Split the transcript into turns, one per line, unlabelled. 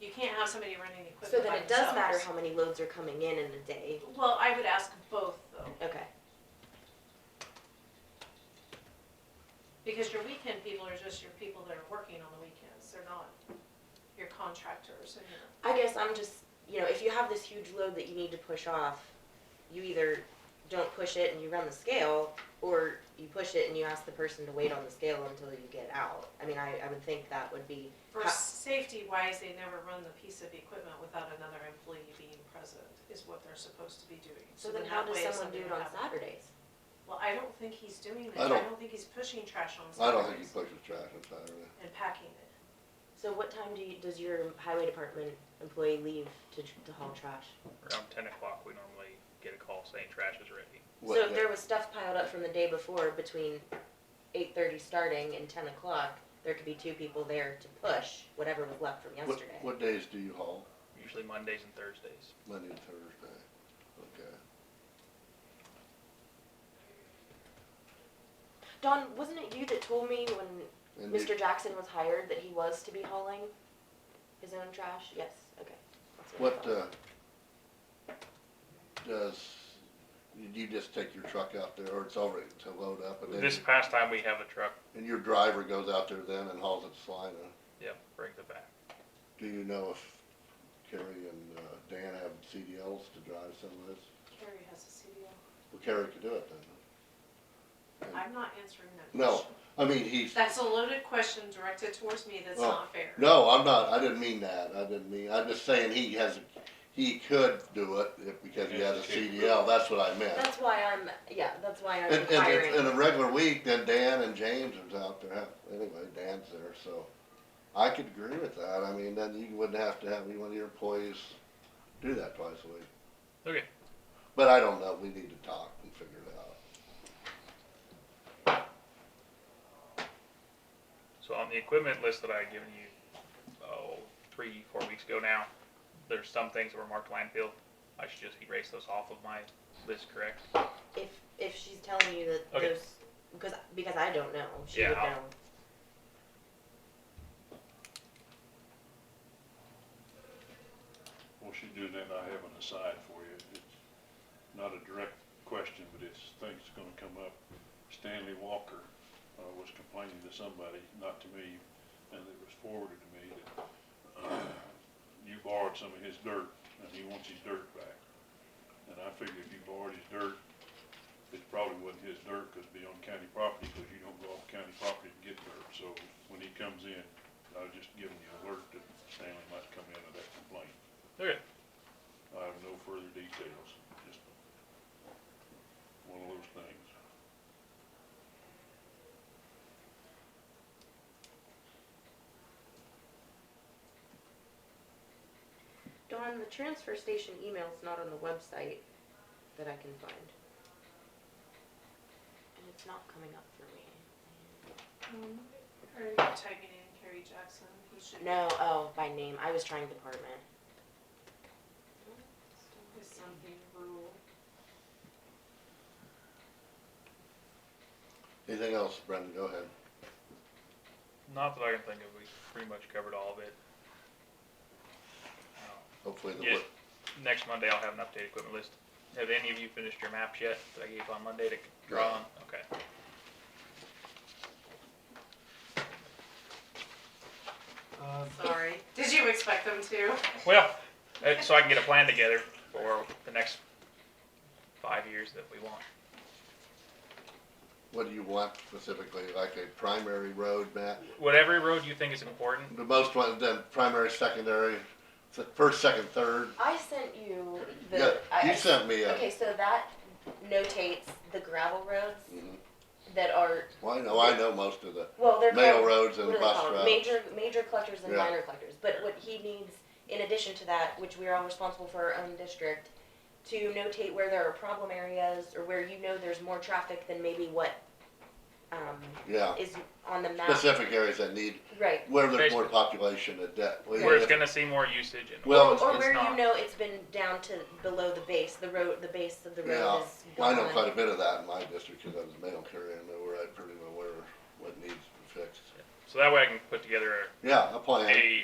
You can't have somebody running the
So
equipment by
then it does matter
themselves.
how many loads are coming in in a day.
Well, I would ask both though,
Okay,
because your weekend people are just your people that are working on the weekends, they're not your contractors and your,
I guess I'm just, you know, if you have this huge load that you need to push off, you either don't push it and you run the scale, or you push it and you ask the person to wait on the scale until you get out. I mean, I, I would think that would be,
for
How-
safety wise, they never run the piece of equipment without another employee being present, is what they're supposed to be doing.
so then
in
how
that
does
way, if
someone
something
do it on
happens-
Saturdays?
Well, I don't think he's doing it,
I
I
don't-
don't think he's pushing trash on
I don't think he
Saturdays
pushes trash on Saturday.
and packing it.
So what time do you, does your highway department employee leave to, to haul trash?
Around ten o'clock, we normally get a call saying trash is ready.
What
So if
day?
there was stuff piled up from the day before between eight thirty starting and ten o'clock, there could be two people there to push whatever was left from
What,
yesterday.
what days do you haul?
Usually Mondays and Thursdays.
Monday and Thursday. Okay.
Don, wasn't it you that told me when
And you-
Mr. Jackson was hired that he was to be hauling his own trash? Yes, okay. That's I
What,
thought.
uh, does, you just take your truck out there, or it's already to load up, and then,
This past time, we have a truck.
and your driver goes out there then and hauls it to Salina?
Yep, brings it back.
Do you know if Kerry and, uh, Dan have CDLs to drive some of this?
Carrie has a CDL.
Well, Kerry could do it then.
I'm not answering that
No.
question.
I mean, he's,
That's a loaded question directed towards me that's
Well,
not fair.
no, I'm not, I didn't mean that, I didn't mean, I'm just saying he has, he could do it if, because he has a CDL, that's what I meant.
That's why I'm, yeah, that's why I'm
And, and,
hiring.
it's- in a regular week, then Dan and James is out there, anyway, Dan's there, so I could agree with that, I mean, then you wouldn't have to have any one of your employees do that twice a week.
Okay.
But I don't know, we need to talk and figure it out.
So on the equipment list that I had given you, oh, three, four weeks ago now, there's some things that were marked landfill. I should just erase those off of my list, correct?
If, if she's telling you that
Okay.
those, because, because I don't know, she
Yeah,
would
I'll-
know.
Well, she's doing that, I have an aside for you. It's not a direct question, but it's things that's gonna come up. Stanley Walker, uh, was complaining to somebody, not to me, and it was forwarded to me that uh, you borrowed some of his dirt and he wants his dirt back. And I figured if you borrowed his dirt, it probably wasn't his dirt, cause it'd be on county property, cause you don't go off county property to get dirt. So when he comes in, I was just giving you alert that Stanley might come in with that complaint.
Okay.
I have no further details, just one of those things.
Don, the transfer station email's not on the website that I can find. And it's not coming up for me.
Mhm. Or you can type it in Carrie Jackson, he should.
No, oh, by name, I was trying department.
Is something rural.
Anything else, Brendan, go ahead.
Not that I can think of. We pretty much covered all of it. Uh,
Hopefully the,
Yeah.
wo-
Next Monday, I'll have an updated equipment list. Have any of you finished your maps yet that I gave on Monday to draw on? Okay.
Sorry. Did you expect them to?
Well, uh, so I can get a plan together for the next five years that we want.
what do you want specifically, like a primary road map?
Whatever road you think is important,
The most one, then primary, secondary, se- first, second, third.
I sent you the.
Yeah,
I-
you
I-
sent me a.
Okay, so that notates the gravel roads
Mhm.
that are,
Well, I know, I know most of the
well, they're
mail
called,
roads
what
and
are they
bus
called?
routes.
Major, major collectors and
Yeah.
minor collectors, but what he needs, in addition to that, which we are all responsible for our own district, to notate where there are problem areas, or where you know there's more traffic than maybe what, um,
Yeah,
is on the map.
specific areas that need,
Right,
where there's more
Basically.
population at that. well,
where it's
yeah,
gonna see more usage and.
Or
Well,
it's
where you
not.
know it's been down to below the base, the road, the base of the road
Yeah,
is
I
gone.
know quite a bit of that in my district, cause I was a mail carrier, and I know where I pretty well where, what needs to be fixed.
So that way I can put together
Yeah, a plan.
a